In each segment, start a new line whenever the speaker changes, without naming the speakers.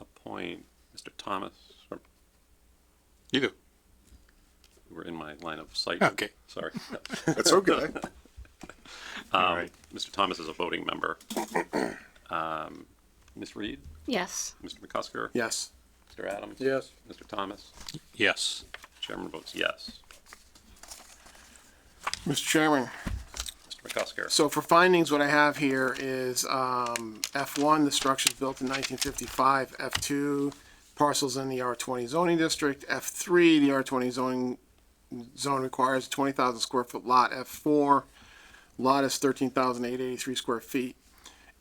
appoint Mr. Thomas, or
You do.
you were in my line of sight.
Okay.
Sorry.
That's okay.
Um,
right.
Mr. Thomas is a voting member. Um, Ms. Reed,
Yes.
Mr. McCusker,
yes.
Mr. Adams.
Yes.
Mr. Thomas,
Yes.
chairman votes yes.
Mr. Chairman,
Mr. McCusker,
so for findings, what I have here is, um, F one, the structure's built in nineteen fifty-five, F two, parcels in the R twenty zoning district, F three, the R twenty zoning zone requires a twenty thousand square foot lot, F four, lot is thirteen thousand eight eighty-three square feet.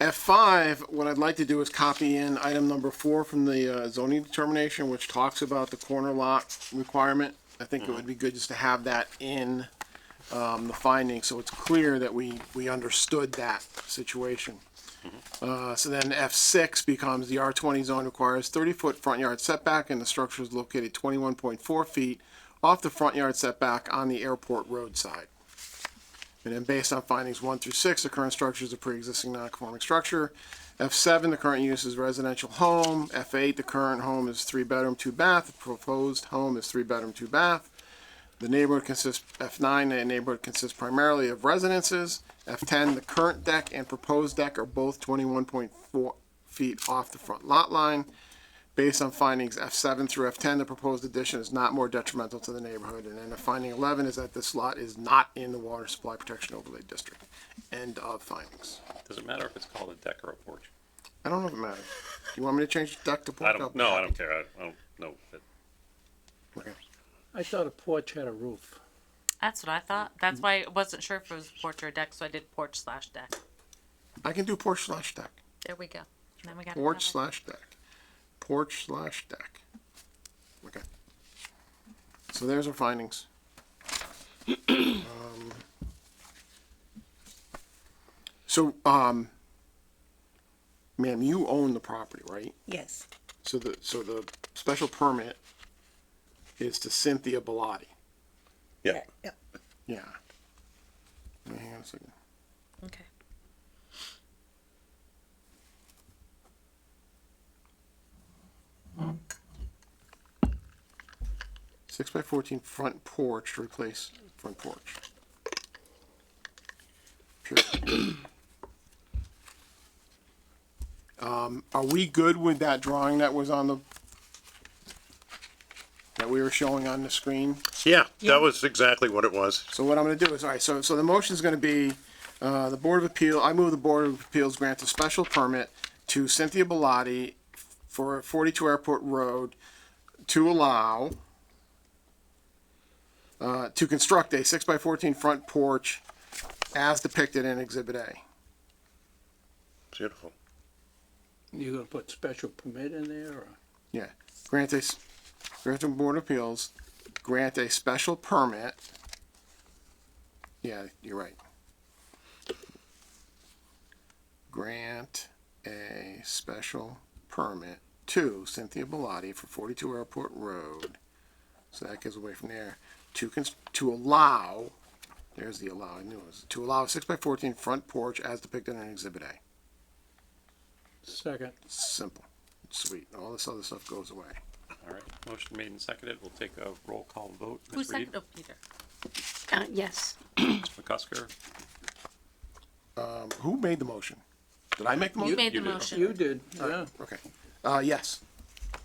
F five, what I'd like to do is copy in item number four from the uh, zoning determination, which talks about the corner lot requirement. I think it would be good just to have that in, um, the finding, so it's clear that we, we understood that situation. Uh, so then F six becomes the R twenty zone requires thirty foot front yard setback and the structure is located twenty-one point four feet off the front yard setback on the airport roadside. And then based on findings one through six, the current structure is a pre-existing non-conforming structure. F seven, the current use is residential home. F eight, the current home is three bedroom, two bath. The proposed home is three bedroom, two bath. The neighborhood consists, F nine, the neighborhood consists primarily of residences. F ten, the current deck and proposed deck are both twenty-one point four feet off the front lot line. Based on findings F seven through F ten, the proposed addition is not more detrimental to the neighborhood. And then the finding eleven is that this lot is not in the water supply protection overlay district. End of findings.
does it matter if it's called a deck or a porch?
I don't know if it matters. You want me to change deck to
I
porch?
don't, no, I don't care. I don't- I don't know. if it-
Okay.
I thought a porch had a roof.
That's what I thought.
Mm-hmm.
That's why I wasn't sure if it was porch or deck, so I did porch slash deck.
I can do porch slash deck.
There we go. Then we got
Porch
another.
slash deck. Porch slash deck. Okay. So there's our findings. Um, So, um, ma'am, you own the property, right?
Yes,
So the, so the special permit is to Cynthia Bellotti.
Yeah.
yeah,
Yeah. Wait, Hang on a second.
Okay.
Six by fourteen front porch to replace front porch. Sure. Um, are we good with that drawing that was on the, that we were showing on the screen?
Yeah, that was exactly what it was.
So what I'm gonna do is, all right, so, so the motion's gonna be, uh, the Board of Appeal, I move the Board of Appeals grant a special permit to Cynthia Bellotti for forty-two Airport Road to allow uh, to construct a six by fourteen front porch as depicted in Exhibit A.
Beautiful.
You gonna put special permit in there or?
Yeah, grant a, s- grant the Board of Appeals, grant a special permit. Yeah, you're right. Grant a special permit to Cynthia Bellotti for forty-two Airport Road. So that goes away from there, to cons- to allow, there's the allow, I knew it was, to allow a six by fourteen front porch as depicted in Exhibit A.
Second.
Simple, sweet, all this other stuff goes away.
All right. Motion made and seconded. We'll take a roll call vote.
Who
Ms. Reed,
seconded? Oh, Peter.
Uh, yes.
Mr. McCusker,
Who made the motion? Did I make the
You
motion?
made the
you did.
motion.
You did, yeah,
Okay. Uh, yes.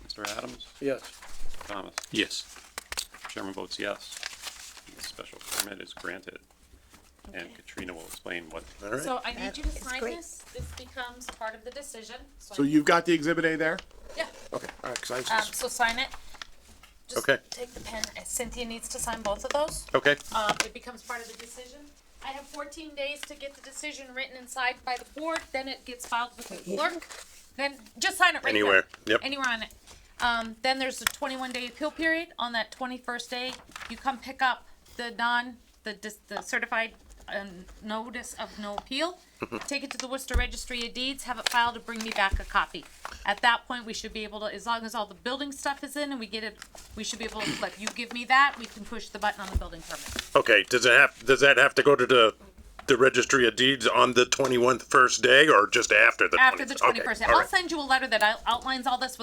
Mr. Adams,
yes.
Thomas,
Yes.
chairman votes yes. The special permit is granted. And Katrina will explain what
All right.
So I need
That
you to
is
sign
great.
this, this becomes part of the decision, so. I
So
need-
you've got the exhibit A there?
Yeah,
Okay, all right, 'cause I was
um,
just,
so sign it. Just
Okay.
Take the pen, and Cynthia needs to sign both of those,
Okay.
um, it becomes part of the decision. I have fourteen days to get the decision written and signed by the board, then it gets filed with the clerk, then just sign it right there.
Anywhere. Yep.
Anywhere on it. Um, then there's a twenty-one day appeal period, on that twenty-first day, you come pick up the non, the dis- the certified, um, notice of no appeal,
Mm-hmm.
take it to the Worcester Registry of Deeds, have it filed, and bring me back a copy. At that point, we should be able to, as long as all the building stuff is in and we get it, we should be able to flip, you give me that, we can push the button on the building permit.
Okay. Does it have, does that have to go to the, the registry of deeds on the 21st day or just after the 20th?
After the
Okay,
twenty-first,
all
I'll
right.
send you a letter that out- outlines all this with